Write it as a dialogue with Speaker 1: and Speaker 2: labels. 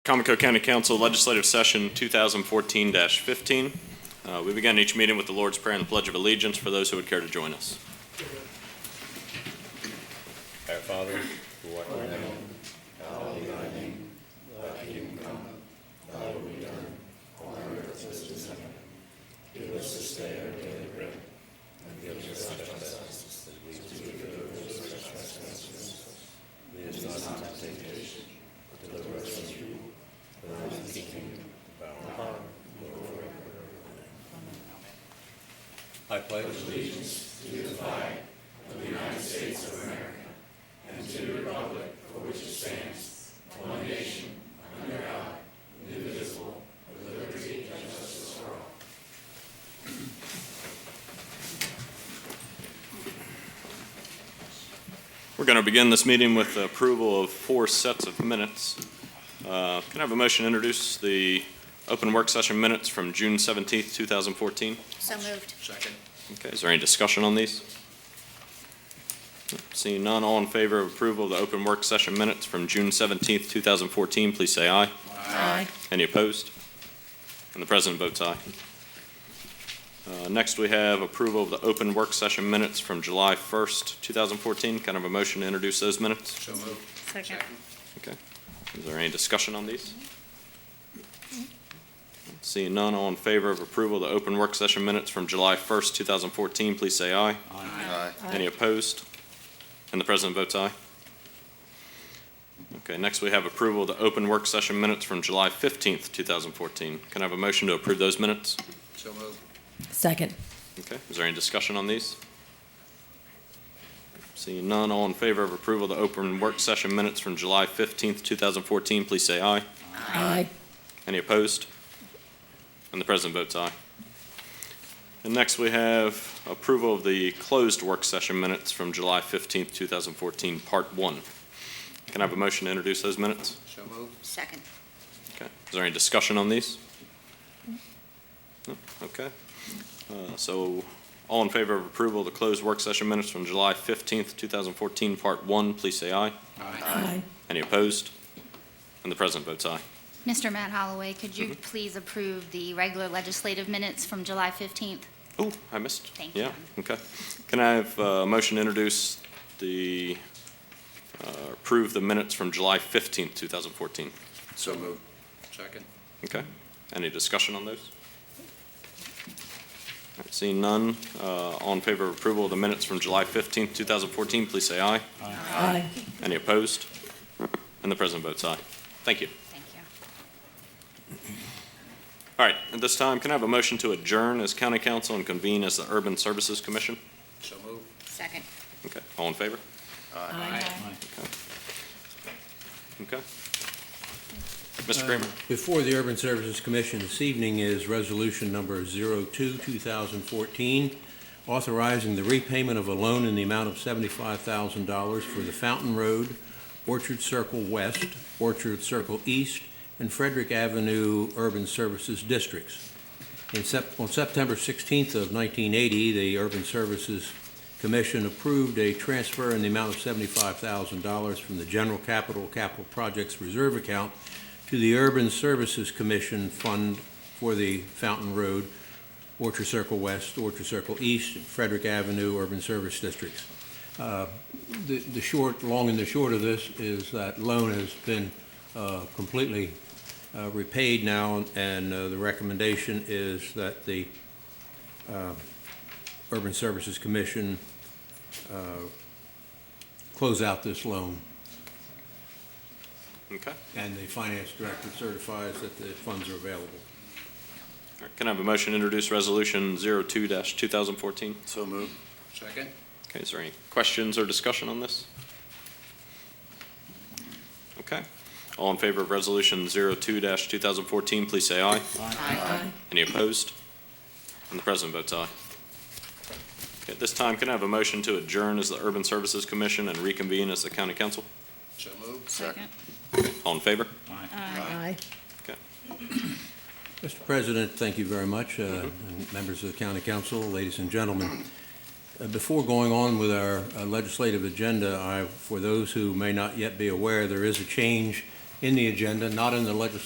Speaker 1: Comico County Council Legislative Session 2014-15. Uh, We begin each meeting with the Lord's Prayer and the Pledge of Allegiance for those who would care to join us.
Speaker 2: Our Father, who art in heaven, I pledge allegiance
Speaker 1: We're going to begin this meeting with the approval of four sets of minutes. Uh, Can I have a motion to introduce the open work session minutes from June 17th, 2014?
Speaker 3: So moved.
Speaker 1: Okay, is there any discussion on these? Seeing none, all in favor of approval of the open work session minutes from June 17th, 2014, please say aye.
Speaker 3: Aye.
Speaker 1: Any opposed? And the president votes aye. Uh, Next, we have approval of the open work session minutes from July 1st, 2014. Kind of a motion to introduce those minutes?
Speaker 3: Second.
Speaker 1: Okay. Is there any discussion on these? Seeing none, all in favor of approval of the open work session minutes from July 1st, 2014, please say aye. Any opposed? And the president votes aye. Okay, next we have approval of the open work session minutes from July 15th, 2014. Can I have a motion to approve those minutes?
Speaker 4: So moved.
Speaker 5: Second.
Speaker 1: Okay, is there any discussion on these? Seeing none, all in favor of approval of the open work session minutes from July 15th, 2014, please say aye.
Speaker 5: Aye.
Speaker 1: Any opposed? And the president votes aye. And next, we have approval of the closed work session minutes from July 15th, 2014, Part 1. Can I have a motion to introduce those minutes?
Speaker 4: So moved.
Speaker 3: Second.
Speaker 1: Okay. Is there any discussion on these? No? Okay. Uh, So all in favor of approval of the closed work session minutes from July 15th, 2014, Part 1, please say aye.
Speaker 5: Aye.
Speaker 1: Any opposed? And the president votes aye.
Speaker 6: Mr. Matt Holloway, could you please approve the regular legislative minutes from July 15th?
Speaker 1: Oh, I missed.
Speaker 6: Thank
Speaker 1: Yeah,
Speaker 6: you.
Speaker 1: okay. Can I have uh, a motion to introduce the, uh, approve the minutes from July 15th, 2014?
Speaker 4: So moved. Second.
Speaker 1: Okay. Any discussion on those? All right, Seeing none, uh, all in favor of approval of the minutes from July 15th, 2014, please say aye.
Speaker 5: Aye.
Speaker 1: Any opposed? And the president votes aye. Thank you.
Speaker 6: Thank you.
Speaker 1: All right, at this time, can I have a motion to adjourn as county council and convene as the Urban Services Commission?
Speaker 4: So moved.
Speaker 3: Second.
Speaker 1: Okay, all in favor?
Speaker 5: Aye.
Speaker 1: Okay. Mr. Kramer?
Speaker 7: Uh, Before the Urban Services Commission this evening is Resolution Number 02, 2014, authorizing the repayment of a loan in the amount of $75,000 for the Fountain Road, Orchard Circle West, Orchard Circle East, and Frederick Avenue Urban Services Districts. In Sep- On September 16th of 1980, the Urban Services Commission approved a transfer in the amount of $75,000 from the General Capital Capital Projects Reserve Account to the Urban Services Commission Fund for the Fountain Road, Orchard Circle West, Orchard Circle East, and Frederick Avenue Urban Service Districts. Uh, The the short, long and the short of this is that loan has been uh, completely uh, repaid now, and uh, the recommendation is that the uh, Urban Services Commission uh, close out this loan,
Speaker 1: Okay.
Speaker 7: and the finance director certifies that the funds are available.
Speaker 1: All right, Can I have a motion to introduce Resolution 02-2014?
Speaker 4: So moved. Second.
Speaker 1: Okay, is there any questions or discussion on this? Okay. All in favor of Resolution 02-2014, please say aye.
Speaker 3: Aye.
Speaker 1: Any opposed? And the president votes aye. Okay, At this time, can I have a motion to adjourn as the Urban Services Commission and reconvene as the county council?
Speaker 4: So moved.
Speaker 3: Second.
Speaker 1: All in favor?
Speaker 5: Aye.
Speaker 7: Mr. President, thank you very much, uh, and members of the county council, ladies and gentlemen. Uh, Before going on with our uh, legislative agenda, I, for those who may not yet be aware, there is a change in the agenda, not in the legislative